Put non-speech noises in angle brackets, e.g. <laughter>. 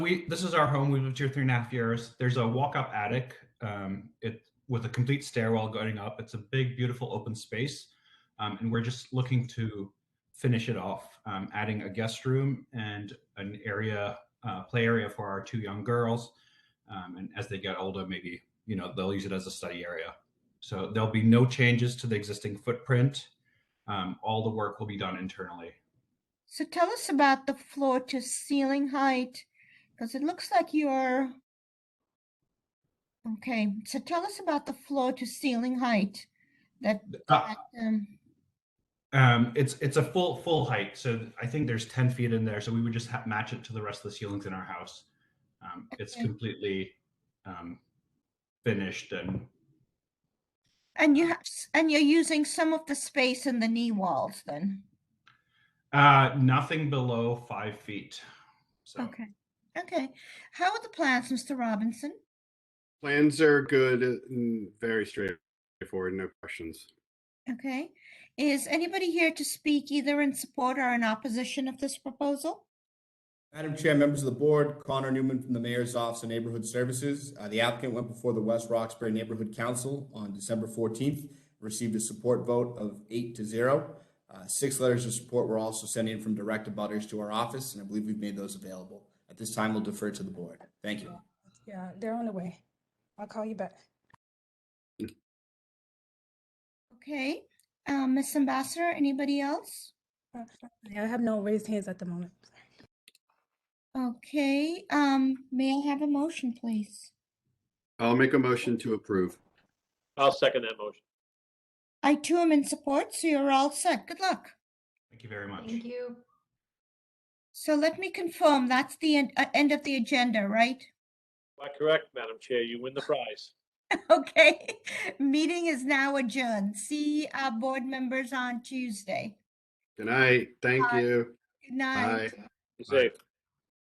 we this is our home. We've lived here three and a half years. There's a walk-up attic. Um, it with a complete stairwell going up. It's a big, beautiful open space, um, and we're just looking to finish it off, um, adding a guest room and an area uh, play area for our two young girls. Um, and as they get older, maybe you know they'll use it as a study area. So there'll be no changes to the existing footprint. Um, all the work will be done internally. So tell us about the floor to ceiling height, because it looks like you're. Okay, so tell us about the floor to ceiling height that, Uh, that, um, Um, it's it's a full full height, so I think there's ten feet in there. So we would just ha- match it to the rest of the ceilings in our house. Um, it's Okay. completely um, finished and and you have, s- and you're using some of the space in the knee walls then. uh, nothing below five feet. So Okay. Okay. How are the plans, Mr. Robinson? Plans are good and very straightforward, no questions. Okay. Is anybody here to speak either in support or in opposition of this proposal? Madam Chair, members of the board, Connor Newman from the Mayor's Office of Neighborhood Services. Uh, The applicant went before the West Roxbury Neighborhood Council on December 14th, received a support vote of eight to zero. Uh, Six letters of support were also sent in from direct abutters to our office, and I believe we've made those available. At this time, we'll defer to the board. Thank you. Yeah, they're on the way. I'll call you back. Okay. Um, Miss Ambassador, anybody else? Uh, I have no raised hands at the moment. Okay. Um, may I have a motion, please? I'll make a motion to approve. I'll second that motion. I too am in support, so you're all set. Good luck. thank you very much. Thank you. So let me confirm, that's the end, uh, end of the agenda, right? <laughs> Am I correct, Madam Chair? You win the prize. Okay. <laughs> Meeting is now adjourned. See our board members on Tuesday. Good night. Thank Aye. you. Good night. Bye. You're safe.